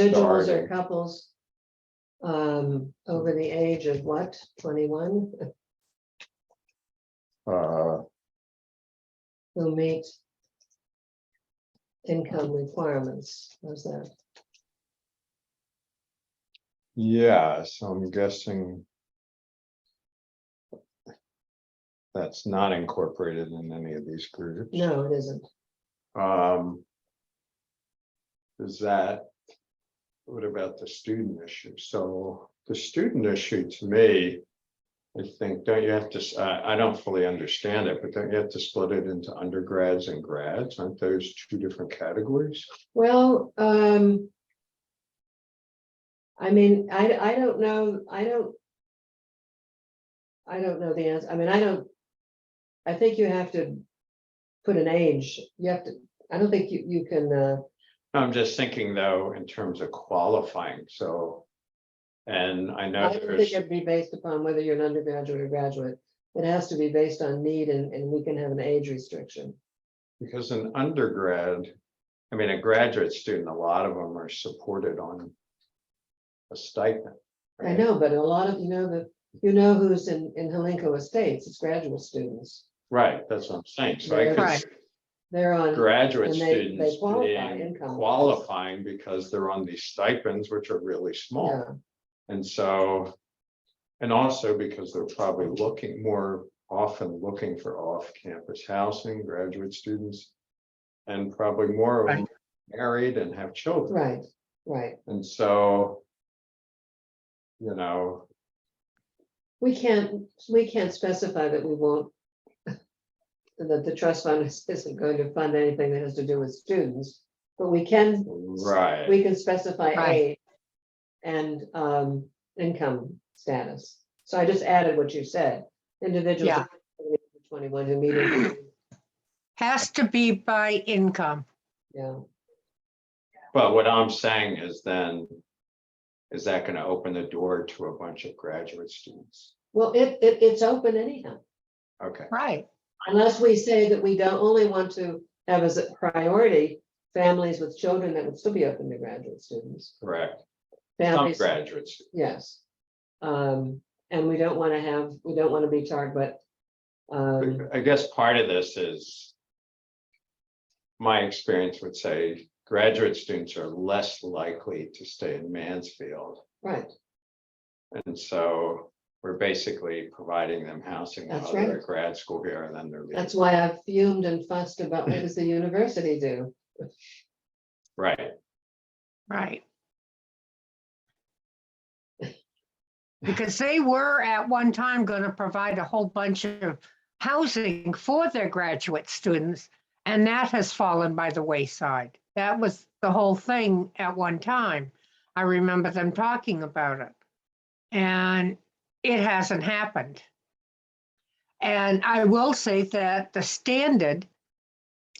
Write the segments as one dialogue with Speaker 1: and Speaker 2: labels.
Speaker 1: individuals or
Speaker 2: starting.
Speaker 1: couples um, over the age of what, twenty-one,
Speaker 2: Uh,
Speaker 1: who meet income requirements, was that?
Speaker 2: yes, I'm guessing. That's not incorporated in any of these groups.
Speaker 1: No, it isn't.
Speaker 2: Um. Is that? What about the student issue? So the student issue to me. I think, don't you have to, s- I, I don't fully understand it, but don't you have to split it into undergrads and grads? Aren't those two different categories?
Speaker 1: Well, um. I mean, I, I don't know, I don't. I don't know the answer, I mean, I don't. I think you have to put an age, you have to, I don't think you, you can, uh,
Speaker 2: I'm just thinking though, in terms of qualifying, so. And I know
Speaker 1: I don't think
Speaker 2: there's,
Speaker 1: it'd be based upon whether you're an undergraduate or graduate. It has to be based on need and, and we can have an age restriction.
Speaker 2: because an undergrad, I mean, a graduate student, a lot of them are supported on. A stipend.
Speaker 1: I
Speaker 2: right?
Speaker 1: know, but a lot of, you know, the, you know who's in, in Helenco Estates, it's graduate students.
Speaker 2: Right, that's what I'm saying, so I
Speaker 1: They're-
Speaker 2: could
Speaker 3: Right.
Speaker 2: see
Speaker 1: They're on,
Speaker 2: graduate
Speaker 1: And they- they
Speaker 2: students
Speaker 1: qualify
Speaker 2: being
Speaker 1: income.
Speaker 2: qualifying because they're on these stipends, which are really small.
Speaker 1: yeah,
Speaker 2: And so, and also because they're probably looking more often looking for off-campus housing, graduate students. And probably more of them married and have children,
Speaker 1: right, right.
Speaker 2: and so. You know,
Speaker 1: We can't, we can't specify that we won't. That the trust fund is- isn't going to fund anything that has to do with students, but we can,
Speaker 2: right,
Speaker 1: we can specify
Speaker 3: Right.
Speaker 1: age. And um, income status. So I just added what you said, individuals.
Speaker 3: Yeah.
Speaker 1: Twenty-one who meet, in-
Speaker 3: Has to be by income.
Speaker 1: yeah,
Speaker 2: but what I'm saying is then. Is that gonna open the door to a bunch of graduate students?
Speaker 1: well, it, it, it's open anyhow.
Speaker 2: Okay,
Speaker 3: Right,
Speaker 1: Unless we say that we don't only want to have as a priority, families with children that would still be open to graduate students.
Speaker 2: correct, some
Speaker 1: Families.
Speaker 2: graduates,
Speaker 1: Yes. Um, and we don't want to have, we don't want to be tarred, but. Um,
Speaker 2: I guess part of this is. My experience would say graduate students are less likely to stay in Mansfield.
Speaker 1: right,
Speaker 2: And so we're basically providing them housing while
Speaker 1: That's
Speaker 2: they're
Speaker 1: right.
Speaker 2: at grad school here and then they're leaving.
Speaker 1: that's why I fumed and fussed about what does the university do?
Speaker 2: Right,
Speaker 3: right. Because they were at one time going to provide a whole bunch of housing for their graduate students, and that has fallen by the wayside. That was the whole thing at one time. I remember them talking about it. And it hasn't happened. And I will say that the standard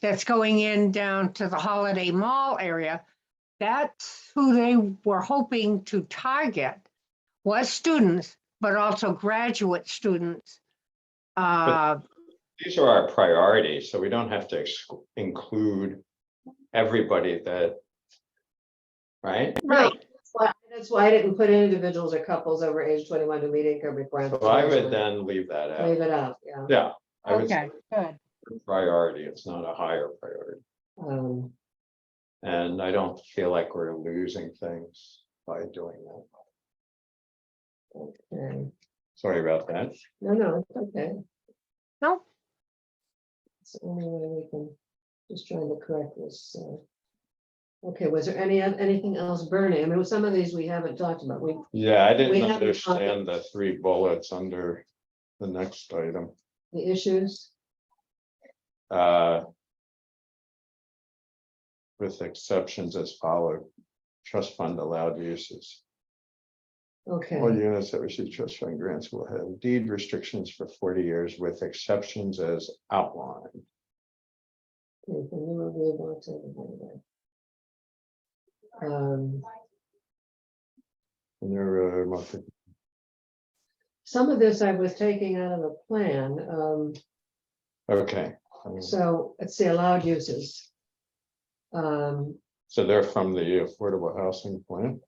Speaker 3: that's going in down to the Holiday Mall area, that's who they were hoping to target was students, but also graduate students. Uh,
Speaker 2: these are our priorities, so we don't have to ex- include everybody that. Right,
Speaker 3: right,
Speaker 1: That's why- That's why I didn't put individuals or couples over age twenty-one to meet income
Speaker 2: so
Speaker 1: requirements.
Speaker 2: I would then leave that out.
Speaker 1: Leave it out, yeah.
Speaker 2: Yeah. I would say
Speaker 3: okay, good.
Speaker 2: priority, it's not a higher priority.
Speaker 1: Um,
Speaker 2: And I don't feel like we're losing things by doing that.
Speaker 1: okay.
Speaker 2: Sorry about that.
Speaker 1: No, no, it's okay.
Speaker 3: No.
Speaker 1: It's the only way we can, just trying to correct this, so. Okay, was there any, oth- anything else burning? I mean, some of these we haven't talked about, we,
Speaker 2: Yeah, I
Speaker 1: We
Speaker 2: didn't
Speaker 1: haven't
Speaker 2: understand the three bullets under the next item.
Speaker 1: the issues.
Speaker 2: Uh, With exceptions as followed, trust fund allowed uses.
Speaker 1: Okay,
Speaker 2: All units that receive trust fund grants will have deed restrictions for forty years with exceptions as outlined.
Speaker 1: okay, so you will be able to do that. Um,
Speaker 2: And there are monthly
Speaker 1: Some of this I was taking out of the plan, um,
Speaker 2: Okay. um,
Speaker 1: so let's see, allowed uses. Um,
Speaker 2: So they're from the Affordable Housing Plan.